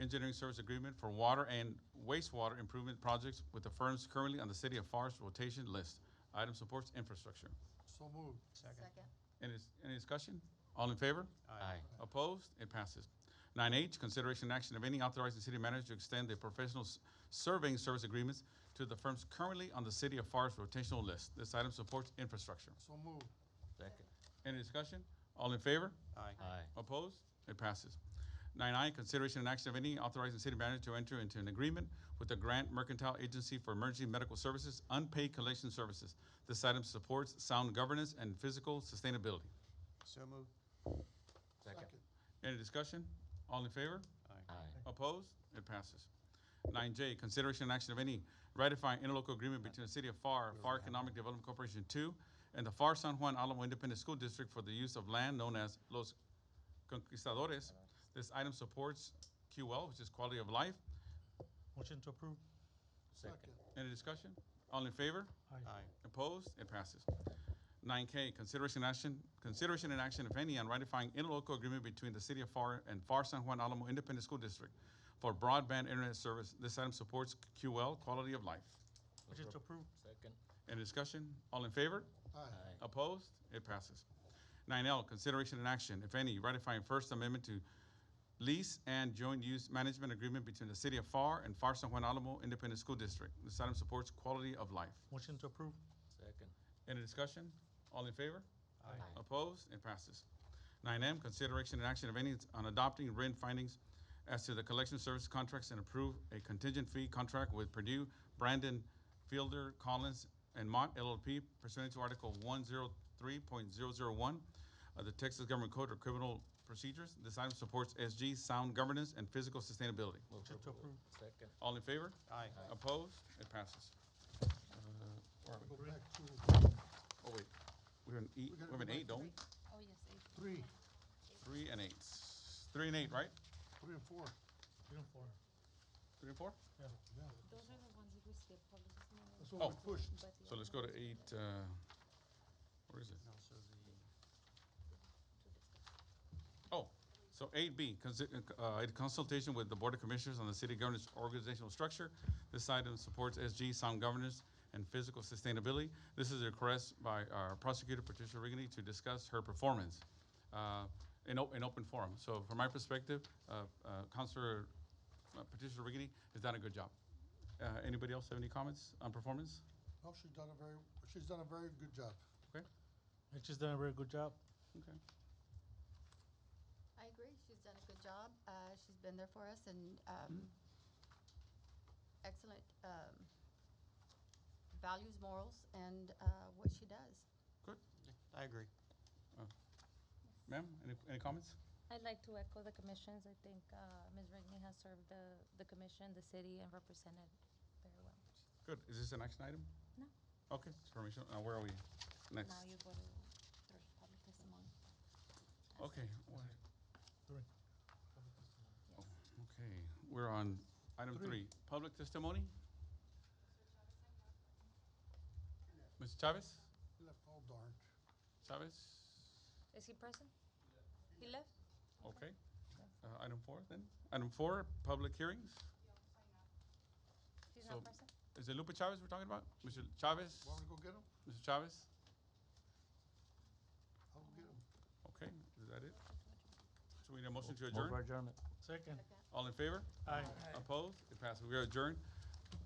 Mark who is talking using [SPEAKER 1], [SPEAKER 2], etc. [SPEAKER 1] engineering service agreement for water and wastewater improvement projects with the firms currently on the City of Forest rotation list. Item supports infrastructure.
[SPEAKER 2] So moved. Second.
[SPEAKER 3] Second.
[SPEAKER 1] Any, any discussion? All in favor?
[SPEAKER 4] Aye.
[SPEAKER 1] Opposed? It passes. Nine H, consideration and action of any authorizing city manager to extend the professional s- surveying service agreements to the firms currently on the City of Forest rotational list. This item supports infrastructure.
[SPEAKER 2] So moved.
[SPEAKER 4] Second.
[SPEAKER 1] Any discussion? All in favor?
[SPEAKER 2] Aye.
[SPEAKER 4] Aye.
[SPEAKER 1] Opposed? It passes. Nine I, consideration and action of any authorizing city manager to enter into an agreement with the Grant Mercantile Agency for Emergency Medical Services Unpaid Collection Services. This item supports sound governance and physical sustainability.
[SPEAKER 2] So moved.
[SPEAKER 4] Second.
[SPEAKER 1] Any discussion? All in favor?
[SPEAKER 4] Aye.
[SPEAKER 1] Opposed? It passes. Nine J, consideration and action of any ratifying interlocal agreement between the City of FAR, FAR Economic Development Corporation Two, and the FAR San Juan Alamo Independent School District for the use of land known as Los Conquistadores. This item supports QL, which is quality of life.
[SPEAKER 5] Motion to approve?
[SPEAKER 4] Second.
[SPEAKER 1] Any discussion? All in favor?
[SPEAKER 2] Aye.
[SPEAKER 1] Opposed? It passes. Nine K, consideration action, consideration and action, if any, on ratifying interlocal agreement between the City of FAR and FAR San Juan Alamo Independent School District for broadband internet service. This item supports QL, quality of life.
[SPEAKER 5] Motion to approve?
[SPEAKER 4] Second.
[SPEAKER 1] Any discussion? All in favor?
[SPEAKER 4] Aye.
[SPEAKER 1] Opposed? It passes. Nine L, consideration and action, if any, ratifying First Amendment to lease and joint use management agreement between the City of FAR and FAR San Juan Alamo Independent School District. This item supports quality of life.
[SPEAKER 5] Motion to approve?
[SPEAKER 4] Second.
[SPEAKER 1] Any discussion? All in favor?
[SPEAKER 5] Aye.
[SPEAKER 1] Opposed? It passes. Nine M, consideration and action of any on adopting written findings as to the collection service contracts and approve a contingent fee contract with Purdue, Brandon, Fielder, Collins, and Mott LLP pursuant to Article one zero three point zero zero one of the Texas Government Code of Criminal Procedures. This item supports SG, sound governance, and physical sustainability.
[SPEAKER 4] Move
[SPEAKER 5] Motion to approve?
[SPEAKER 4] Second.
[SPEAKER 1] All in favor?
[SPEAKER 2] Aye.
[SPEAKER 1] Opposed? It passes. Uh,
[SPEAKER 2] Go back to
[SPEAKER 1] Oh, wait, we're in E,
[SPEAKER 2] We gotta
[SPEAKER 1] we're in
[SPEAKER 2] go back
[SPEAKER 1] eight, don't we?
[SPEAKER 3] Oh, yes, eight.
[SPEAKER 2] three,
[SPEAKER 1] Three and eight. Three and eight, right?
[SPEAKER 2] three and four.
[SPEAKER 5] Three and four.
[SPEAKER 1] Three and four?
[SPEAKER 2] Yeah.
[SPEAKER 3] Those are the ones that we skipped, probably this morning.
[SPEAKER 2] That's what we pushed.
[SPEAKER 3] but the
[SPEAKER 1] So let's
[SPEAKER 3] other
[SPEAKER 1] go to eight, uh, where is it?
[SPEAKER 2] so the.
[SPEAKER 1] Oh, so eight B, consi- uh, in consultation with the Board of Commissioners on the city governance organizational structure. This item supports SG, sound governance, and physical sustainability. This is a request by our prosecutor Patricia Rigney to discuss her performance, uh, in o- in open forum. So from my perspective, uh, uh, Counselor uh, Patricia Rigney has done a good job. Uh, anybody else have any comments on performance?
[SPEAKER 2] No, Oh, she's done a very, she's done a very good job.
[SPEAKER 5] And she's done a very good job.
[SPEAKER 1] Okay.
[SPEAKER 3] I agree, she's done a good job, uh, she's been there for us and, um, excellent, um, values, morals, and, uh, what she does.
[SPEAKER 2] I agree.
[SPEAKER 1] Ma'am, any, any comments?
[SPEAKER 6] I'd like to echo the commissions. I think uh, Ms. Rigney has served the, the commission, the city, and represented very well.
[SPEAKER 1] Good. Is this an action item?
[SPEAKER 6] No.
[SPEAKER 1] Okay, it's permission. Uh, where are we? Next.
[SPEAKER 3] Now you go to three, public testimony.
[SPEAKER 1] Okay. wha-
[SPEAKER 5] Three.
[SPEAKER 1] Okay, we're on item
[SPEAKER 2] Three.
[SPEAKER 1] three, public testimony. Mr. Chavez?
[SPEAKER 2] Left, oh darn.
[SPEAKER 1] Chavez?
[SPEAKER 6] Is he present? He left?
[SPEAKER 1] Okay. Uh, item four then? Item four, public hearings?
[SPEAKER 6] He's
[SPEAKER 1] So-
[SPEAKER 6] not present?
[SPEAKER 1] Is it Lupe Chavez we're talking about? Mr. Chavez?
[SPEAKER 2] Want me to go get him?
[SPEAKER 1] Mr. Chavez?
[SPEAKER 2] I'll go get him.
[SPEAKER 1] Okay, is that it? So we need a motion to adjourn?
[SPEAKER 5] Second.
[SPEAKER 1] All in favor?
[SPEAKER 5] Aye.
[SPEAKER 1] Opposed? It passes. We are adjourned.